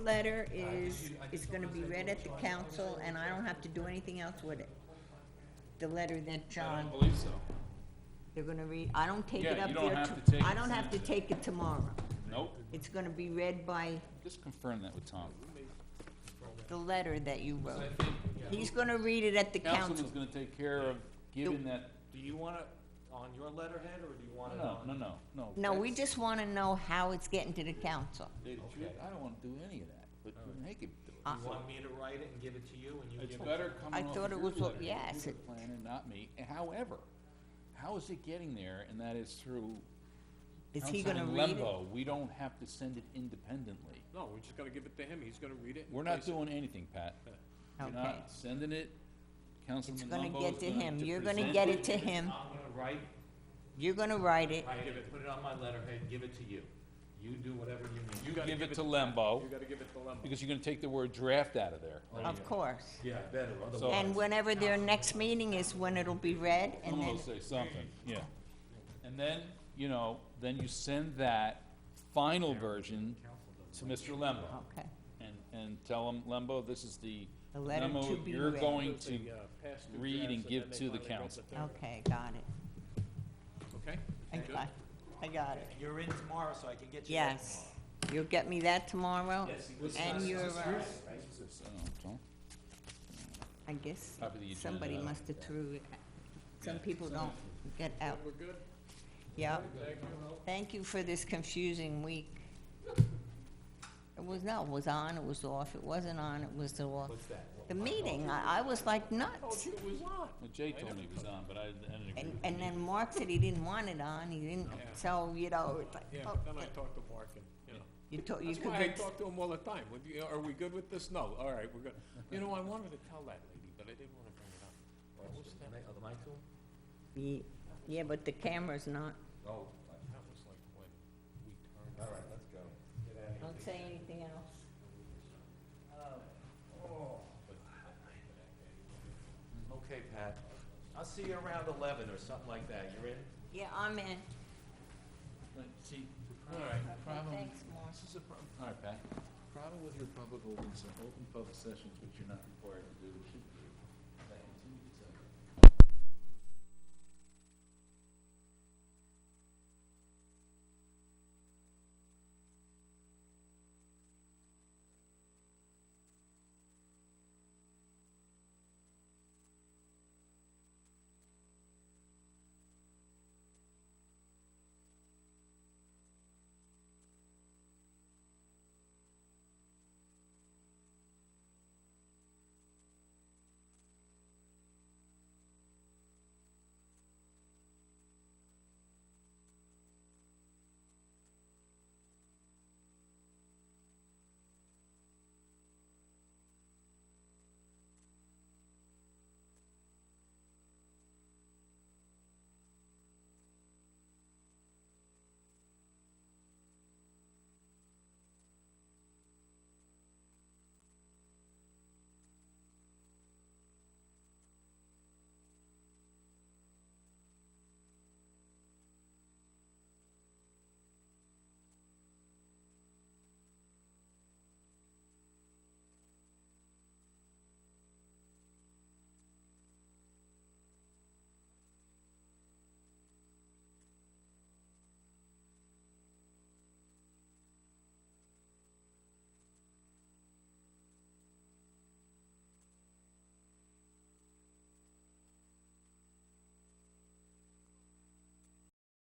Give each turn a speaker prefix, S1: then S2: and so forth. S1: letter is, is gonna be read at the council, and I don't have to do anything else with it. The letter that
S2: I
S1: John,
S2: don't believe so.
S1: they're gonna read, I don't take it
S2: Yeah,
S1: up
S2: you don't
S1: there,
S2: have
S1: to-
S2: to take
S1: I
S2: it
S1: don't have to
S2: seriously.
S1: take it tomorrow.
S2: Nope.
S1: It's gonna be read by
S2: Just confirm that with Tom.
S1: the letter that you wrote.
S2: I think
S1: He's gonna read it at the council.
S2: Councilman's gonna take care of giving that,
S3: Do you want it on your letterhead, or do you want it
S2: no,
S3: on?
S2: no, no, no.
S1: No, we
S2: that's
S1: just wanna know how it's getting to the council.
S2: dated truth. I don't wanna do any of that, but they could do it.
S1: Uh,
S3: You want me to write it and give it to you, and you
S2: It's
S3: give it?
S2: better coming
S1: I
S2: off
S1: thought
S2: of
S1: it
S2: your
S1: was what-
S2: letter,
S1: yes,
S2: you're the
S1: it-
S2: planner, not me. However, how is it getting there, and that is through
S1: Is he gonna
S2: Councilman
S1: read it?
S2: Lembo. We don't have to send it independently.
S4: No, we just gotta give it to him, he's gonna read it. and
S2: We're not
S4: place it.
S2: doing anything, Pat. We're
S1: Okay.
S2: not sending it.
S1: It's
S2: Councilman
S1: gonna
S2: Lembo
S1: get
S2: is
S1: to
S2: going
S1: him.
S2: to
S1: You're gonna
S2: present
S1: get
S2: it.
S1: it to him.
S3: I'm gonna write,
S1: You're gonna write it.
S3: write it, put it on my letterhead, give it to you. You do whatever you need.
S2: You
S4: gotta
S2: give
S4: give
S2: it
S4: it
S2: to Lembo,
S4: You gotta give it to Lemon.
S2: because you're gonna take the word draft out of there.
S1: Of course.
S3: Yeah, better,
S2: So-
S1: And whenever their next meeting is, when it'll be read, and
S2: Someone
S1: then,
S2: will say something, yeah. And then, you know, then you send that final version to Mr. Lembo.
S1: okay.
S2: And, and tell him, Lembo, this is the
S1: The letter to
S2: memo
S1: be
S2: you're
S1: read."
S2: going
S4: Those
S2: to
S4: they, uh, pass two
S2: read and
S4: drafts,
S2: give
S4: then they
S2: to the
S4: finally read
S2: council.
S4: third.
S1: Okay, got it.
S4: Okay?
S1: I
S4: good.
S1: got, I got it.
S3: You're in tomorrow, so I can get you that
S1: Yes. You'll get me that tomorrow? And your, uh,
S2: So, Tom?
S1: I guess,
S2: Copy the agenda.
S1: somebody must have threw, it. some people don't get out.
S4: We're good?
S1: Yeah.
S4: Thank you.
S1: Thank you for this confusing week. It was, no, it was on, it was off, it wasn't on, it was off.
S3: What's that?
S1: The meeting, I, I was like nuts.
S4: It was not.
S2: Well, Jay told me it was on, but I didn't- I didn't agree
S1: And,
S2: with
S1: and
S2: him.
S1: then Mark said he didn't want it on, he didn't,
S4: Yeah.
S1: so, you know, it's like,
S4: Yeah,
S1: oh,
S4: then I talked to Mark and, you know.
S1: you told, you
S4: That's
S1: could
S4: why I
S1: get,
S4: talk to him all the time. Would you- Are we good with this? No, all right, we're good. You know, I wanted to tell that lady, but I didn't wanna bring it up. What was that?
S3: Am I cool?
S1: Ye- yeah, but the camera's not.
S3: Oh,
S4: That was like when we turned.
S3: all right, let's go. Get out of here.
S1: Don't say anything else.
S3: Okay, Pat, I'll see you around eleven or something like that, you're in?
S1: Yeah, I'm in.
S2: But See, all right, problem,
S1: Thanks, Mark.
S2: this is a problem, all right, Pat. Problem with your public opens, open public sessions, which you're not required to do,